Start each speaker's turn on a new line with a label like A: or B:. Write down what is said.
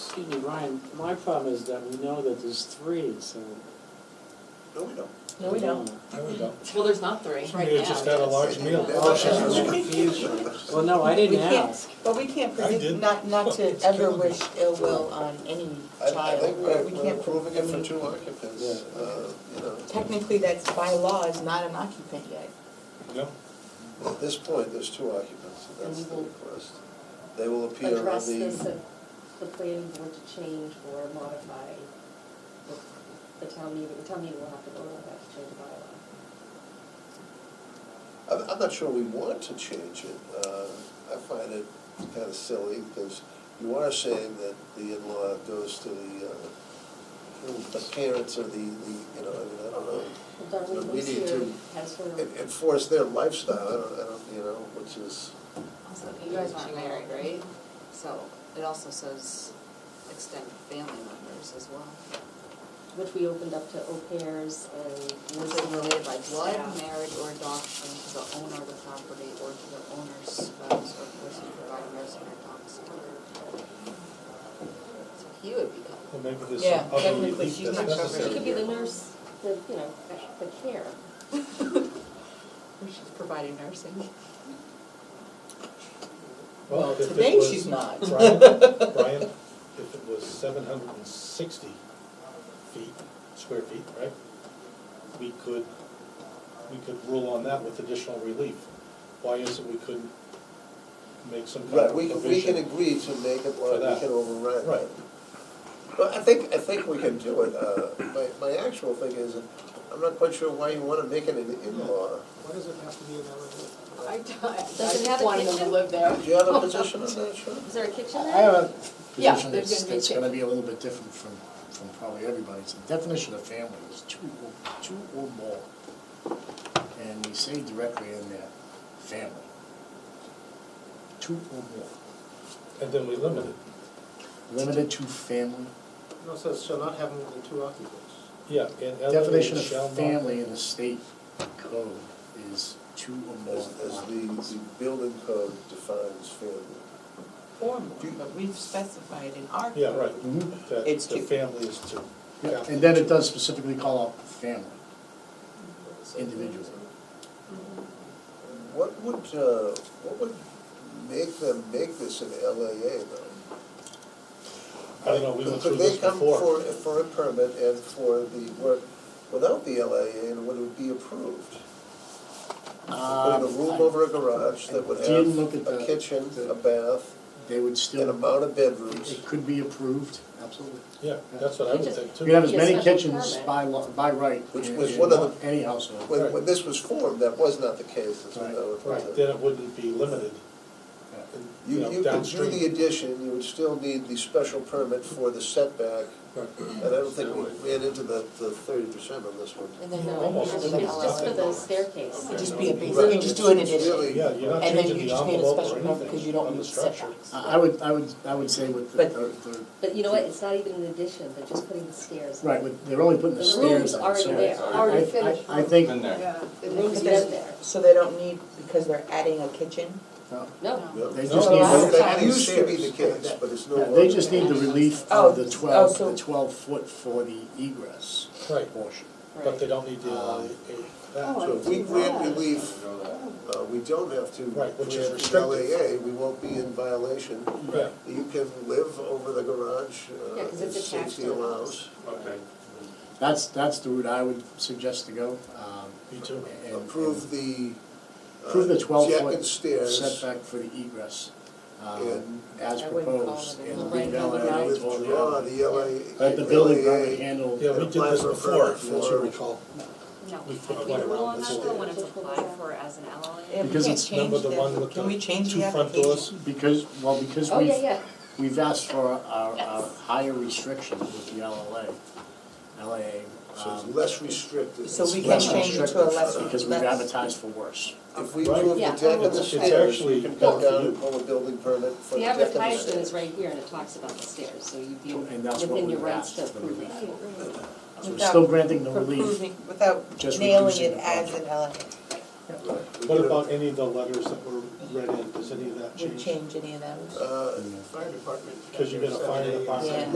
A: Excuse me, Ryan, my problem is that we know that there's three, so.
B: No, we don't.
C: No, we don't.
D: There we go.
C: Well, there's not three right now.
D: Somebody just had a large meal.
A: Oh, that's
B: confusing.
A: Well, no, I didn't
E: We can't,
A: ask.
E: but we can't
D: I
E: predict,
D: did.
E: not, not to
D: It's
E: ever
D: killing me.
E: wish ill will on any
B: I, I
E: child,
B: think
E: but
B: we're,
E: we
B: we're
E: can't.
B: approving it
E: I
B: for
E: mean,
B: two occupants,
A: Yeah.
B: uh, you know.
E: Technically, that's by law, is not an occupant yet.
D: No,
B: At this point, there's two occupants, so that's
F: And
B: the
F: we will
B: request. They will appear on
F: address this
B: the,
F: at the planning board to change or modify the- the town meeting, the town meeting will have to vote on that to change the bylaw.
B: I'm, I'm not sure we want to change it. Uh, I find it kind of silly, because you are saying that the in-law goes to the, uh, the parents or the, the, you know, I mean, I don't know.
F: Well,
B: But
F: Darlene
B: we
F: lives
B: need
F: here,
B: to
F: has her.
B: En- Enforce their lifestyle, I don't, I don't, you know, which is.
G: Also, you guys aren't married, right? So it also says extended family members as well.
F: which we opened up to au pairs and
G: Which are related by blood,
F: staff.
G: marriage, or adoption to the owner of the property or to the owner's spouse or person providing resident adopts. So he would be covered.
D: well, maybe there's
E: Yeah,
D: some other
E: technically
D: relief
E: she's
D: that's
E: not covered.
D: necessary.
F: She could be the
D: here.
F: nurse, the, you know, the care.
G: Or she's providing nursing.
E: Well,
D: if it
E: today
D: was-
E: she's not.
D: Brian, Brian, if it was seven hundred and sixty feet, square feet, right? We could, we could rule on that with additional relief. Why is it we couldn't make some kind
B: Right,
D: of
B: we, can- we can
D: provision?
B: agree to make it
D: For
B: law, we
D: that.
B: can override.
D: Right.
B: But I think, I think we can do it. Uh, my, my actual thing is, I'm not quite sure why you wanna make it an in-law.
H: Why does it have to be an elevation?
G: I don't, I
F: Doesn't have a kitchen?
G: live there.
B: Do you have a position on that, Sean?
F: Is there a kitchen
I: I
F: there?
I: have a
G: Yeah,
I: position
G: there's
I: that's,
G: gonna be a
I: that's
G: chick-
I: gonna be a little bit different from, from probably everybody. So The definition of family is two or, two or more. And we say directly in there, family. Two or more,
D: And then we limit it.
I: limited to family.
H: No, it says shall not have more than two occupants.
D: Yeah, and
I: Definition
D: elderly
I: of
D: shall not.
I: family in the state code is two or
B: As,
I: more.
B: as the, the building code defines family.
E: Or more, but we've specified in our.
D: Yeah, right.
I: Mhm.
D: That
E: It's
D: the
E: two.
D: family is two.
I: Yeah, And then it does specifically call out family, individual.
B: What would, uh, what would make them make this an LAA though?
D: I don't know, we went through
B: Could
D: this
B: they come
D: before.
B: for, for a permit and for the work without the LAA and would it be approved? Put in a
I: Um,
B: room
I: I-
B: over a garage that would
I: I didn't look
B: have
I: at
B: a
I: the-
B: kitchen,
I: the-
B: a bath,
I: They would
B: an
I: still,
B: amount of bedrooms.
I: it could be approved, absolutely.
D: Yeah, that's what I would think too.
I: You can have as
F: Yeah,
I: many
F: special
I: kitchens
F: permit.
I: by law, by right, in
B: Which was one of
I: in
B: the-
I: any household.
B: When, when this was formed, that was not the case, that's what I would
D: Right,
B: put it.
D: then it wouldn't be limited,
I: Yeah.
D: and,
B: uh, You,
D: you know,
B: you could do
D: downstream.
B: the addition, you would still need the special permit for the setback,
D: Right.
B: and I don't think we ran into the, the thirty percent on this one.
C: And then
F: No,
C: the-
D: Almost.
F: It's just for the
C: It
F: staircase.
C: would
E: Just be a basic,
B: Right.
E: you just do an
B: It's really-
E: addition,
D: Yeah, you're not
E: And then
D: changing
E: you
D: the
E: just need a
D: envelope or
E: special permit
D: anything
E: 'cause you don't
D: on the
E: need
D: structure.
E: setbacks.
I: I I would, I would, I would say with the,
E: But-
I: the,
F: But you know what, it's not even an addition, they're just putting the stairs.
I: the- right, with- they're only putting the
F: The
I: stairs
F: room's
I: in,
F: already
I: so
F: there,
I: I-
F: already
I: I- I-
F: finished.
I: I think,
J: Been there.
F: The room's
E: Because-
F: been there.
E: so they don't need, because they're adding a kitchen?
I: no.
F: No,
B: No.
I: They
D: No,
I: just
D: no,
I: need,
D: no.
I: the-
B: That used to be the case, but it's no
I: yeah,
B: longer.
I: they just need the relief of
E: Oh,
I: the
E: oh,
I: twelve,
E: so-
I: the twelve foot for the egress
D: Right.
I: portion.
D: But they don't need the, uh,
E: Oh,
D: that.
B: So if we grant relief, uh, we don't have to
D: Right,
B: grant
D: which is
B: the LAA,
D: restrictive.
B: we won't be in violation.
D: Yeah.
B: You can live over the garage,
F: Yeah,
B: uh,
F: 'cause
B: if
F: it's attached
B: safety
F: to the
B: allows.
J: Okay.
I: That's, that's the route I would suggest to go, um.
D: Me too.
I: and-
B: Approve the. uh,
I: Prove the twelve
B: Deck and
I: foot
B: stairs,
I: setback for the egress, um,
B: And-
I: as
G: I wouldn't call it
I: proposed,
G: a
I: and
G: building.
I: leave LAA
B: and
I: to all the
B: withdraw
I: other.
B: the LA.
I: Let the building permit
B: LAA.
I: handle.
D: Yeah, we did this before, if that's what we call.
G: No, I
D: We
G: think
D: put
G: the
D: one around
G: rule on
D: the
G: that
D: store.
G: though, when it's applied for as an LLA.
E: Yeah, we
I: Because
E: can't
I: it's
E: change
D: number the
E: that.
D: one with
E: Can
D: the
E: we change
D: two
E: the
D: front
E: application?
D: doors.
I: Because, well, because
F: oh, yeah,
I: we've,
F: yeah.
I: we've asked for our, our
G: Yes.
I: higher restrictions with the LLA, LAA.
B: So it's
I: um,
B: less restrictive.
E: So we
I: it's
E: can
I: less
E: change it to a
I: restrictive
E: less-
I: Because we've
E: less-
I: advertised for worse.
B: If we approve the
F: Yeah.
B: deck and the
F: It's
B: stairs,
D: actually-
B: you can come down and pull a building permit for the
F: The
B: deck and the stairs.
F: advertisement is right here and it talks about the stairs, so you'd be
I: And that's what
F: within your
I: we've
F: rights
I: asked.
F: to
I: for
F: approve
I: relief.
F: that.
I: So we're
E: Without
I: still granting the relief.
E: Approving, without
I: Just
E: nailing
I: reducing
E: it
I: the
E: as
I: project.
E: an uh, LLA.
D: What about any of the letters that were read in, does any of that
E: Would
D: change?
E: change any of those?
K: Uh,
B: Fire department.
D: Because you got a fire
B: Seven, eight,
D: department.
E: Yeah.